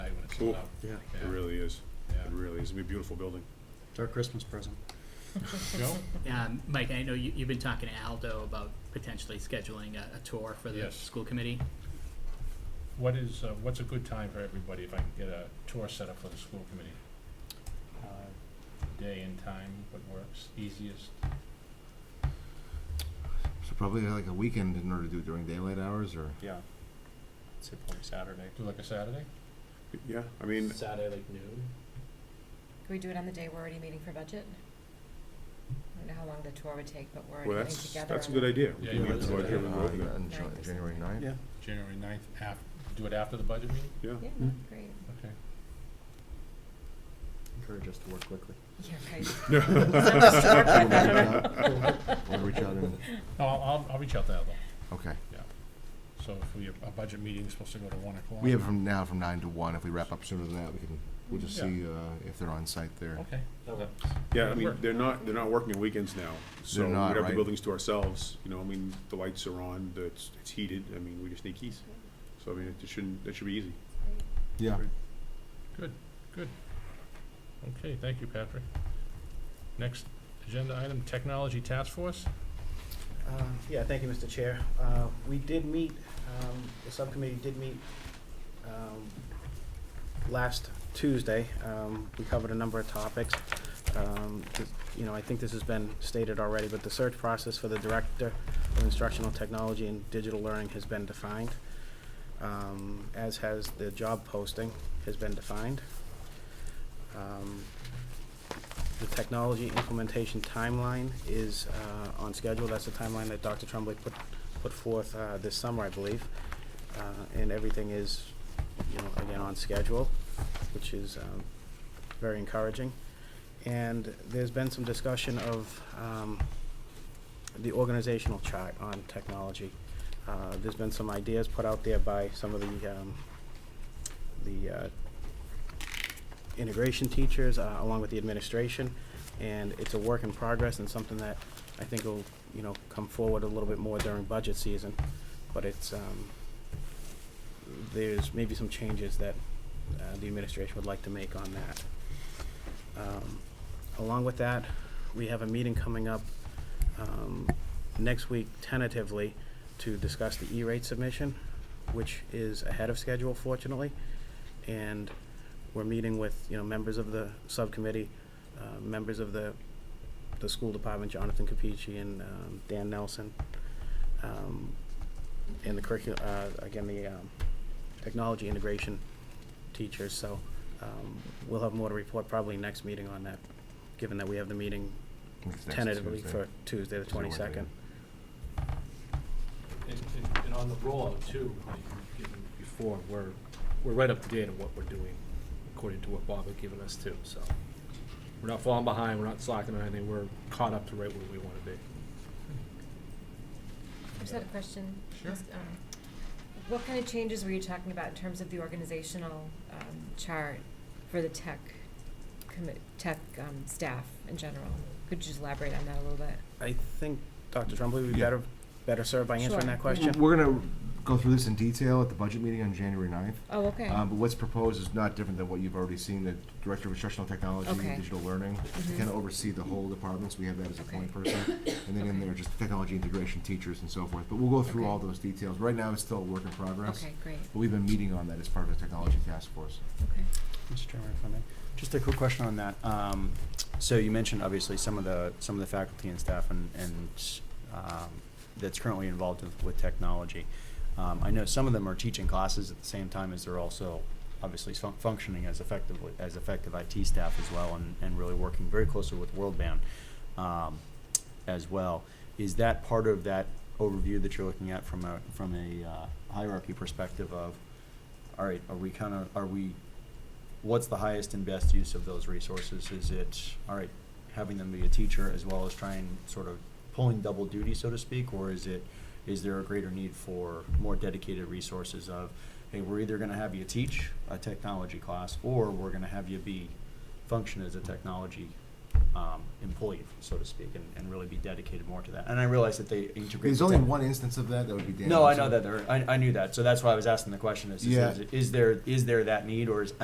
cool. up. Yeah, Yeah. It really is. Yeah. It really is. It'll be a beautiful building. it's our Christmas present. Joe? Um, Mike, I know you, you've been talking to Aldo about potentially scheduling a, a tour for the Yes. school committee. What is, uh, what's a good time for everybody if I can get a tour set up for the school committee? Uh, Day and time, what works easiest? So probably like a weekend in order to do it during daylight hours or? Yeah. Say probably Saturday. Do like a Saturday? Yeah, I mean, Saturday like noon? Can we do it on the day we're already meeting for budget? I don't know how long the tour would take, but we're already well, meeting that's, together. that's a on good it. idea. Yeah, We you can that's go a out here good and Uh, work that. on Ninth Jan- or January something. ninth? Yeah. January ninth, af- do it after the budget meeting? Yeah. Yeah, Mm. great. Encourage us to work quickly. Yeah, right. Start by better. We'll reach out and, No, I'll, I'll, I'll reach out to Aldo. okay. So if we, our budget meeting is supposed to go to one o'clock. We have from now from nine to one. If we wrap up sooner than that, we can, we'll just Yeah. see, uh, if they're on site there. Okay. Okay. Yeah, I mean, Work. they're not, they're not working weekends now, so we not, have the right. buildings to ourselves, you know, I mean, the lights are on, the- it's, it's heated, I mean, we just need keys. So I mean, it shouldn't, that should be easy. Yeah. Good, good. Okay, thank you, Patrick. Next agenda item, technology task force? Uh, Yeah, thank you, Mr. Chair. Uh, We did meet, um, the subcommittee did meet um, last Tuesday. Um, We covered a number of topics. Um, th- You know, I think this has been stated already, but the search process for the Director of Instructional Technology and Digital Learning has been defined, um, as has the job posting has been defined. Um, the technology implementation timeline is uh, on schedule. That's the timeline that Dr. Tremblay put, put forth uh, this summer, I believe. Uh, And everything is, you know, again, on schedule, which is um, very encouraging. And there's been some discussion of um, the organizational chart on technology. Uh, There's been some ideas put out there by some of the, um, the uh, integration teachers, uh, along with the administration, and it's a work in progress and something that I think will, you know, come forward a little bit more during budget season. But it's, um, there's maybe some changes that, uh, the administration would like to make on that. Um, along with that, we have a meeting coming up, um, next week tentatively to discuss the E-rate submission, which is ahead of schedule fortunately. And we're meeting with, you know, members of the subcommittee, uh, members of the, the school department, Jonathan Capici and um, Dan Nelson, um, and the curriculum, again, the um, technology integration teachers. So um, we'll have more to report probably next meeting on that, given that we have the meeting Next- next tentatively Tuesday. for Tuesday, the Tuesday, Wednesday. twenty-second. And, and, and on the rollout too, like you've given before, we're, we're right up to date on what we're doing, according to what Bob had given us too, so. We're not falling behind, we're not slacking on anything, we're caught up to right where we wanna be. I just had a question. Sure. Just, um, What kind of changes were you talking about in terms of the organizational um, chart for the tech, commi- tech um, staff in general? Could you just elaborate on that a little bit? I think Dr. Tremblay would be Yeah. better, better served by answering Sure. that question. We're gonna go through this in detail at the budget meeting on January ninth. Oh, okay. Um, but what's proposed is not different than what you've already seen, the Director of Instructional Technology Okay. and Digital Learning. Mhm. Kind of oversee the whole departments, we have that as a Okay. point person. And then in Okay. there, just technology integration teachers and so forth, but we'll go through all Okay. those details. Right now, it's still a work in progress. Okay, great, But we've been meeting on that as part of the technology task force. okay. Mr. Chairman, if I may, just a quick question on that. Um, so you mentioned obviously some of the, some of the faculty and staff and, and, um, that's currently involved with, with technology. Um, I know some of them are teaching classes at the same time as they're also obviously fun- functioning as effectively, as effective IT staff as well and, and really working very closely with World Bound, um, as well. Is that part of that overview that you're looking at from a, from a uh, hierarchy perspective of, all right, are we kind of, are we what's the highest and best use of those resources? Is it, all right, having them be a teacher as well as trying sort of pulling double duty, so to speak, or is it, is there a greater need for more dedicated resources of, hey, we're either gonna have you teach a technology class, or we're gonna have you be, function as a technology, um, employee, so to speak, and, and really be dedicated more to that? And I realize that they integrate. There's the only tech- one instance of that, that would be Dan. No, I Wilson. know that there, I, I knew that, so that's why I was asking the question, is, Yeah. is, is there, is there that need, or is,